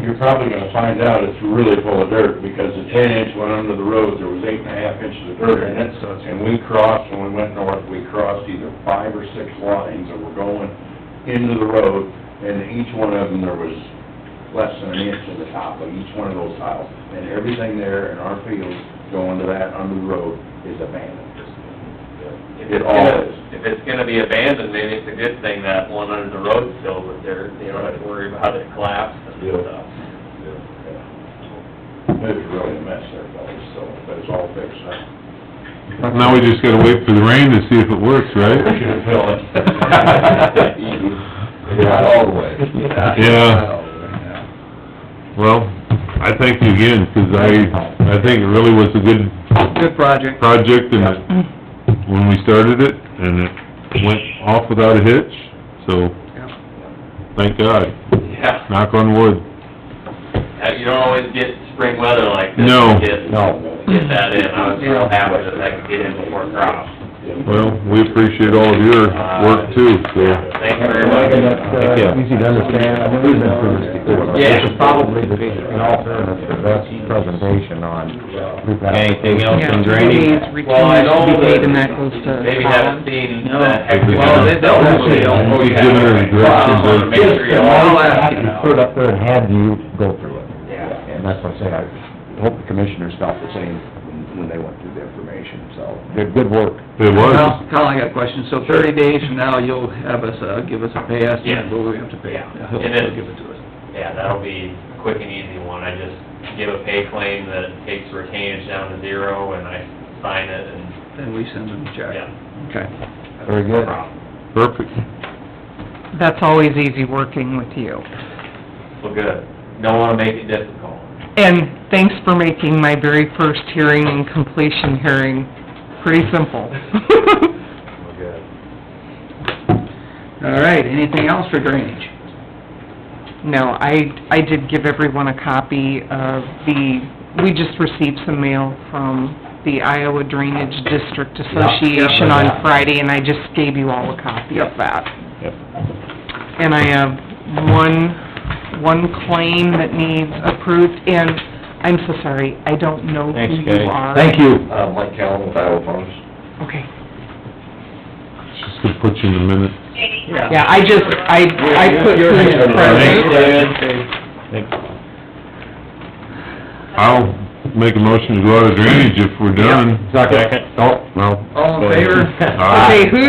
You're probably gonna find out it's really full of dirt, because the ten inch went under the road, there was eight and a half inches of dirt in it. so it's- And we crossed, when we went north, we crossed either five or six lines that were going into the road, and each one of them, there was less than an inch in the top of each one of those tiles. And everything there in our field going to that under the road is abandoned. If It it's all gonna, is. if it's gonna be abandoned, then it's a good thing that one under the road's filled with dirt, you don't have to worry about it collapsing Yeah. and stuff. It's really a mess there, fellas, so, but it's all fixed up. Now we just gotta wait for the rain to see if it works, right? Should fill it. Not always. Yeah. Well, I thank you again, 'cause I, I think it really was a good Good project. project, and it- when we started it, and it went off without a hitch, so, thank God, Yeah, knock on wood. Uh, you don't always get spring weather like this. No. to Get, No. get that in, I was real happy that I could get in before crops. Well, we appreciate all of your work too, so. Thank you very much. Thank you. uh, Easy to understand, I've been through this before. Yeah. This is probably the, in all fairness, the best presentation on. we've got- Anything else Yeah, on maybe drainage? it's Well, I return know to be paid and that that goes to Maybe Colin. haven't seen the heck, No. well, they don't, they don't. He's giving her directions Well, I wanna of- make sure you all have it. Put up there and had you go through it. Yeah. And that's what I'm saying, I hope the commissioners felt the same when- when they went through the information, so, good, good work. It was, Well, Colin, I got a question, so thirty days from now, you'll have us, uh, give us a pay estimate, Yeah. what we have to pay. Yeah. He'll, And then- he'll give it to us. Yeah, that'll be a quick and easy one. I just give a pay claim that takes retainage down to zero and I sign it and, Then we send them a check. yeah. Okay. Very no good. problem. perfect. That's always easy working with you. Well, good. Don't wanna make it difficult. And thanks for making my very first hearing and completion hearing pretty simple. Well, good. All right, anything else for drainage? No, I, I did give everyone a copy of the, we just received some mail from the Iowa Drainage District Association on Friday, and I just gave you all a copy of that. Yep. And I have one, one claim that needs approved, and I'm so sorry, I don't know who Thanks, you Kay. are. Thank you. Uh, Mike Callen with Iowa Farms. Okay, Just gonna put you in a minute. yeah, I just, I, I put you in the I'll make a motion to go out of drainage if we're done. Second. Oh, well. All in favor? Aye. Okay, who?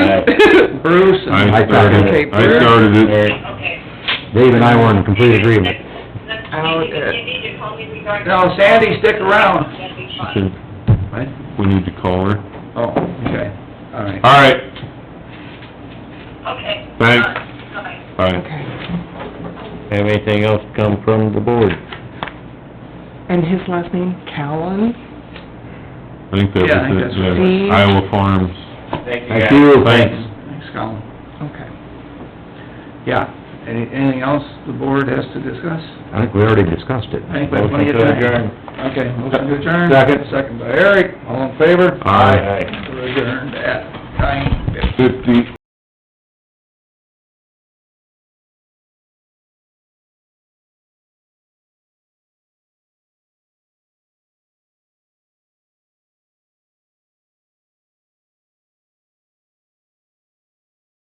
Bruce and... I started, it. I started it. Okay. Dave and I were in complete agreement. That's, Oh, you need, good. you need to call me regarding. No, Sandy, stick around. That'd be She fun. said, Right? We need to call her. Oh, okay, all right. All right, Okay. Thanks. Uh, Bye. bye. Okay. Have anything else come from the board? And his last name, Callan? I think that was Yeah, I think it, that's yeah. right. Iowa Farms. Thank you guys. Thank you. Thanks, Colin. Okay. Yeah, any, anything else the board has to discuss? I think we already discussed it. I think we have plenty of Motion to time. Okay, motion to adjourn. Second. Second by Eric, all in favor? Aye. We're adjourned at nine fifty. Fifty